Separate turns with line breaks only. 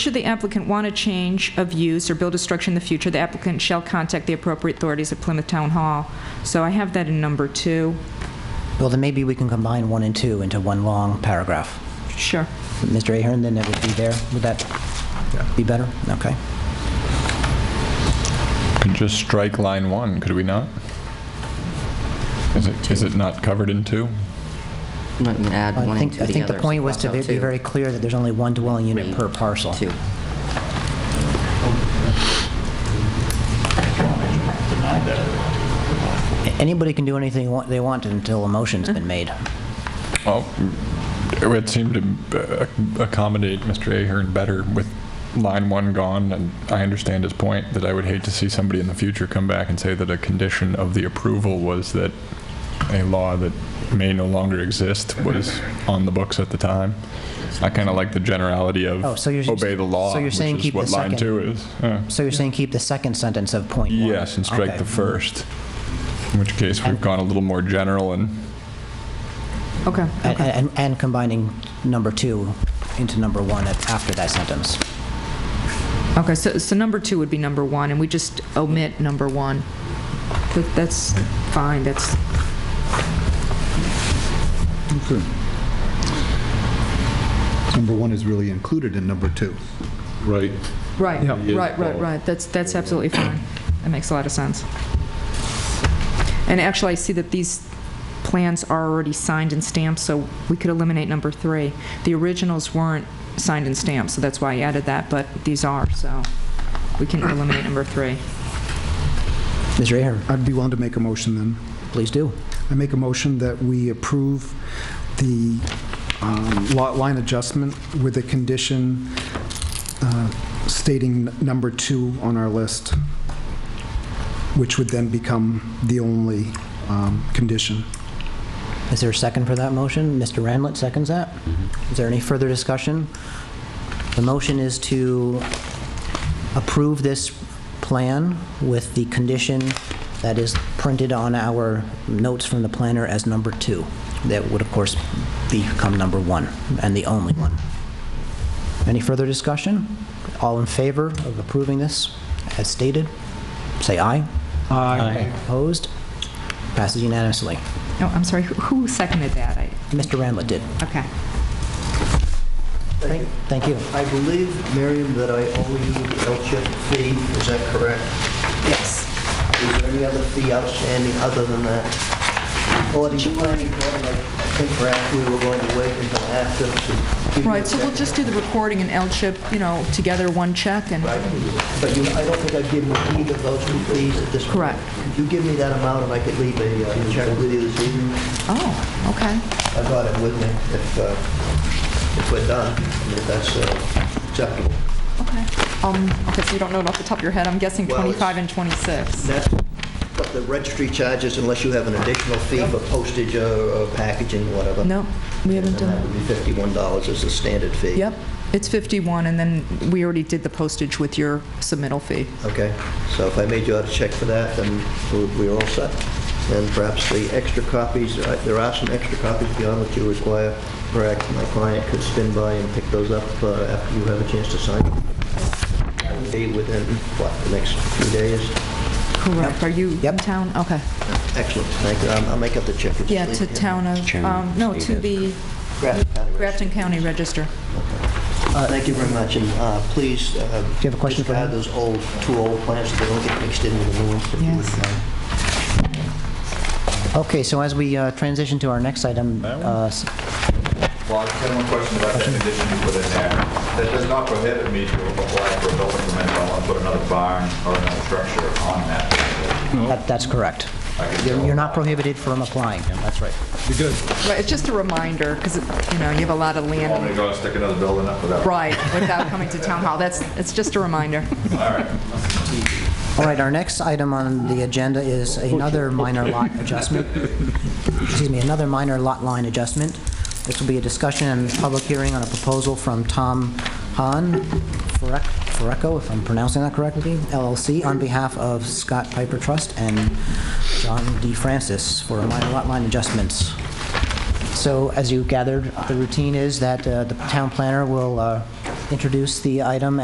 Should the applicant want a change of use or build a structure in the future, the applicant shall contact the appropriate authorities at Plymouth Town Hall. So I have that in number two.
Well, then maybe we can combine one and two into one long paragraph.
Sure.
Mr. Ahern, then that would be there. Would that be better? Okay.
Could just strike line one, could we not? Is it, is it not covered in two?
Not gonna add
I
one and
think,
two
I think
together.
the point was to
so
be be very clear that there's only one dwelling unit per parcel.
Two.
Anybody can do anything wa- they want until a motion's been made.
Well, Oh, it would seem to uh, accommodate Mr. Ahern better with line one gone, and I understand his point that I would hate to see somebody in the future come back and say that a condition of the approval was that a law that may no longer exist was on the books at the time. I kind of like the generality of
Oh, so you're-
obey the law,
so you're
which
saying
is
keep the
what line
second-
two is. Yeah.
So you're saying keep the second sentence of point one?
Yes, and strike
Okay.
the first. In which case, we've gone a little more general and
Okay.
And- And, and combining number two into number one at- after that sentence.
Okay, so, so number two would be number one, and we just omit number one. That- That's fine, that's,
Number one is really included in number two.
Right.
right,
Yeah.
right, right, right, that's, that's absolutely fine. That makes a lot of sense. And actually, I see that these plans are already signed and stamped, so we could eliminate number three. The originals weren't signed and stamped, so that's why I added that, but these are, so we can eliminate number three.
Mr. Ahern,
I'd be willing to make a motion then.
please do.
I make a motion that we approve the um, lot line adjustment with a condition uh, stating number two on our list, which would then become the only um, condition.
Is there a second for that motion? Mr. Randlet seconds that. Is there any further discussion? The motion is to approve this plan with the condition that is printed on our notes from the planner as number two. That would, of course, become number one and the only one. Any further discussion? All in favor of approving this as stated? Say aye. Aye. Opposed? Passes unanimously.
No, Oh, I'm sorry, who- who seconded that? I-
Mr. Randlet did.
Okay.
Thank thank you.
I believe, Miriam, that I owe you the LCHIP fee, is that correct?
Yes.
Is there any other fee outstanding other than that? Or do you mind, I think perhaps we were going to wait until after to give you a
Right, so we'll just do the recording and L-chip, you know, together, one check, and,
check. But you, I don't think I've given you either of those two fees at this point.
Correct.
You give me that amount and I could leave a uh, check with you this evening.
oh, okay.
I got it with me if, uh, if we're done, I mean, if that's uh, acceptable.
Okay. Um, okay, so you don't know it off the top of your head, I'm guessing
Well, it's-
25 and 26.
That's what the registry charges unless you have an additional fee for postage or or packaging, whatever.
No, we haven't
And that
done,
would be $51 as the standard fee.
yep, it's 51, and then we already did the postage with your submittal fee.
Okay, so if I made you out a check for that, then we- we're all set. And perhaps the extra copies, uh, there are some extra copies beyond what you require. Perhaps my client could spin by and pick those up uh, after you have a chance to sign them. That would Be within, what, the next few days?
Correct, are you in
Yep.
town? Okay.
Excellent, thank you. I'll I'll make up the check.
Yeah, to town of, um, no, to the
Grafton County Register.
Grafton County Register.
Thank you very much, and uh, please... Do you
have a question for him?
Discard those old, two old plans so they don't get mixed in with the new ones. if you would
Yes.
mind.
Okay, so as we uh, transition to our next item, uh, s-
Well, I just have one question about that condition you put in there. That does not prohibit me to apply for a building permit if I want to put another barn or another structure on that.
that- that's correct. You're you're not prohibited from applying, that's right.
Right, it's just a reminder, because, you know, you have a lot of
You want me to
land,
go and stick another building up without?
right, without coming to town hall, that's, it's just a reminder.
All right, our next item on the agenda is another minor lot adjustment. Excuse me, another minor lot line adjustment. This will be a discussion and public hearing on a proposal from Tom Hahn, Furek- Fureco, if I'm pronouncing that correctly, LLC, on behalf of Scott Piper Trust and John D. Francis for minor lot line adjustments. So as you gathered, the routine is that uh, the town planner will uh, introduce the item